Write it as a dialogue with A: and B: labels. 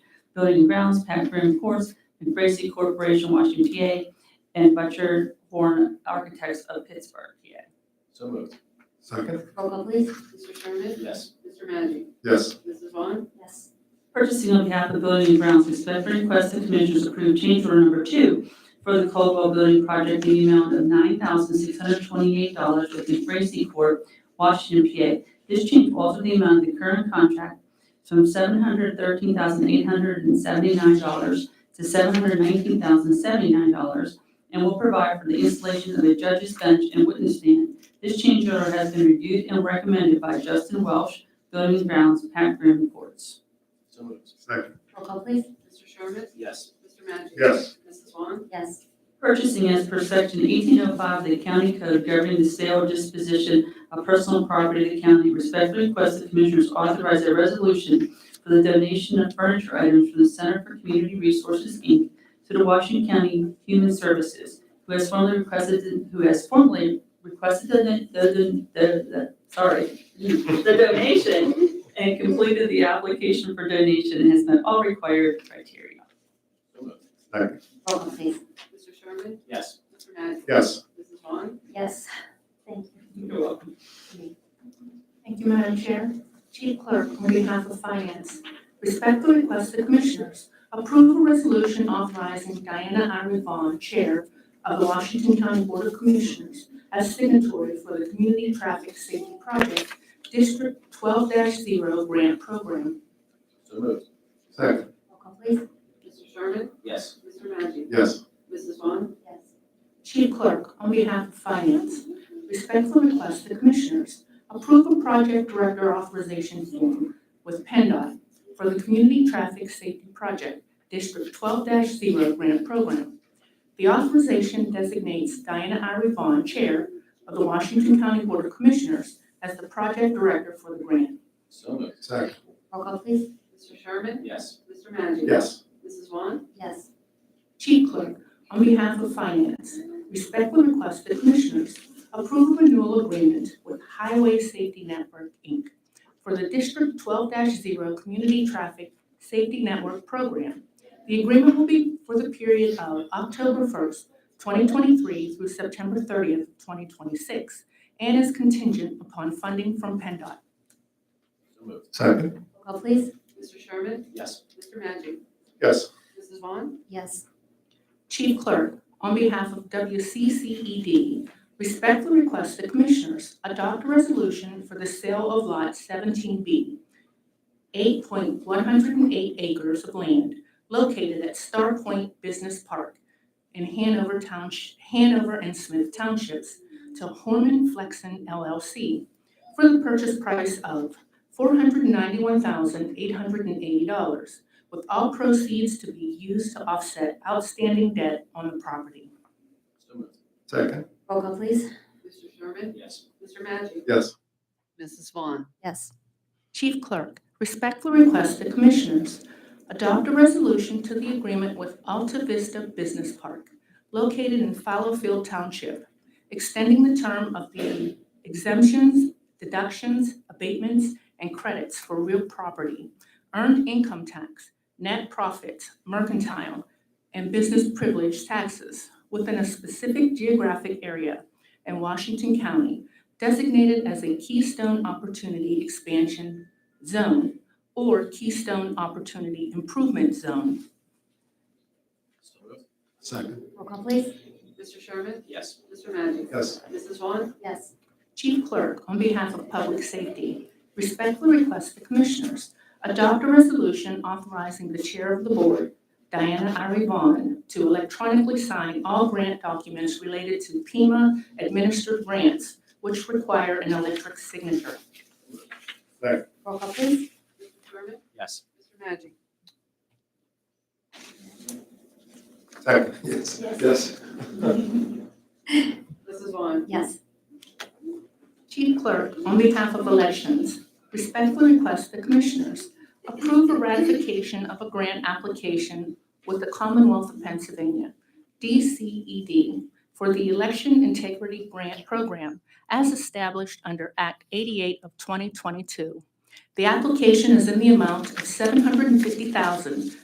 A: Building and Grounds, Pat Grimm Courts, and Gracie Corporation, Washington, PA, and Butcher Horn Architects of Pittsburgh, PA.
B: So moved.
C: Second?
D: Roll call please.
E: Mr. Sherman?
B: Yes.
E: Mr. Magic?
C: Yes.
E: Mrs. Vaughn?
D: Yes.
A: Purchasing on behalf of the Building and Grounds Inspector requests the Commissioners approve change order number two for the Caldwell Building Project in the amount of nine thousand six hundred twenty-eight dollars with the Gracie Court, Washington, PA. This change alters the amount of the current contract from seven hundred thirteen thousand eight hundred and seventy-nine dollars to seven hundred nineteen thousand seventy-nine dollars and will provide for the installation of a judge's bench and witness stand. This change order has been reviewed and recommended by Justin Welsh, Building and Grounds, Pat Grimm, Courts.
B: So moved.
C: Second?
D: Roll call please.
E: Mr. Sherman?
B: Yes.
E: Mr. Magic?
C: Yes.
E: Mrs. Vaughn?
D: Yes.
A: Purchasing as per section eighteen oh five of the county code governing the sale or disposition of personal property of the county, respectfully request the commissioners authorize a resolution for the donation of furniture items from the Center for Community Resources, Inc. to the Washington County Human Services, who has formally requested, who has formally requested the, the, the- the, sorry, the donation and completed the application for donation and has met all required criteria.
B: So moved.
D: Roll call please.
E: Mr. Sherman?
B: Yes.
E: Mr. Magic?
C: Yes.
E: Mrs. Vaughn?
D: Yes. Thank you.
A: You're welcome.
F: Thank you, Madam Chair. Chief Clerk, on behalf of Finance, respectfully request the Commissioners approve a resolution authorizing Diana Iron Vaughn, Chair of the Washington County Board of Commissioners, as signatory for the Community Traffic Safety Project District twelve zero grant program.
B: So moved.
C: Second?
D: Roll call please.
E: Mr. Sherman?
B: Yes.
E: Mr. Magic?
C: Yes.
E: Mrs. Vaughn?
D: Yes.
F: Chief Clerk, on behalf of Finance, respectfully request the Commissioners approve a project director authorization form with PennDOT for the Community Traffic Safety Project District twelve zero grant program. The authorization designates Diana Irie Vaughn, Chair of the Washington County Board of Commissioners, as the project director for the grant.
B: So moved.
C: Second?
D: Roll call please.
E: Mr. Sherman?
B: Yes.
E: Mr. Magic?
C: Yes.
E: Mrs. Vaughn?
D: Yes.
F: Chief Clerk, on behalf of Finance, respectfully request the Commissioners approve a renewal agreement with Highway Safety Network, Inc. for the District twelve zero Community Traffic Safety Network Program. The agreement will be for the period of October first, twenty twenty-three through September thirtieth, twenty twenty-six, and is contingent upon funding from PennDOT.
B: So moved.
C: Second?
D: Roll call please.
E: Mr. Sherman?
B: Yes.
E: Mr. Magic?
C: Yes.
E: Mrs. Vaughn?
D: Yes.
F: Chief Clerk, on behalf of WCCED, E respectfully request the Commissioners adopt a resolution for the sale of Lot 17B, 8.108 acres of land located at Star Point Business Park in Hanover Township, Hanover and Smith Townships to Horman Flexen LLC for the purchase price of $491,880 with all proceeds to be used to offset outstanding debt on the property.
B: So moved.
C: Second?
D: Roll call please.
E: Mr. Sherman?
B: Yes.
E: Mr. Magic?
C: Yes.
E: Mrs. Vaughn?
D: Yes.
F: Chief Clerk, respectfully request the Commissioners adopt a resolution to the agreement with Alta Vista Business Park, located in Fallowfield Township, extending the term of the exemptions, deductions, abatements, and credits for real property, earned income tax, net profits, mercantile, and business privilege taxes within a specific geographic area in Washington County designated as a Keystone Opportunity Expansion Zone or Keystone Opportunity Improvement Zone.
B: So moved.
C: Second?
D: Roll call please.
E: Mr. Sherman?
B: Yes.
E: Mr. Magic?
C: Yes.
E: Mrs. Vaughn?
D: Yes.
F: Chief Clerk, on behalf of Public Safety, respectfully request the Commissioners adopt a resolution authorizing the Chair of the Board, Diana Irie Vaughn, to electronically sign all grant documents related to Pima administered grants, which require an electric signature.
D: Roll call please.
E: Mr. Sherman?
B: Yes.
E: Mr. Magic?
C: Second? Yes. Yes.
E: Mrs. Vaughn?
D: Yes.
F: Chief Clerk, on behalf of Elections, respectfully request the Commissioners approve a ratification of a grant application with the Commonwealth of Pennsylvania, DCED, for the Election Integrity Grant Program as established under Act 88 of 2022. The application is in the amount of $750,000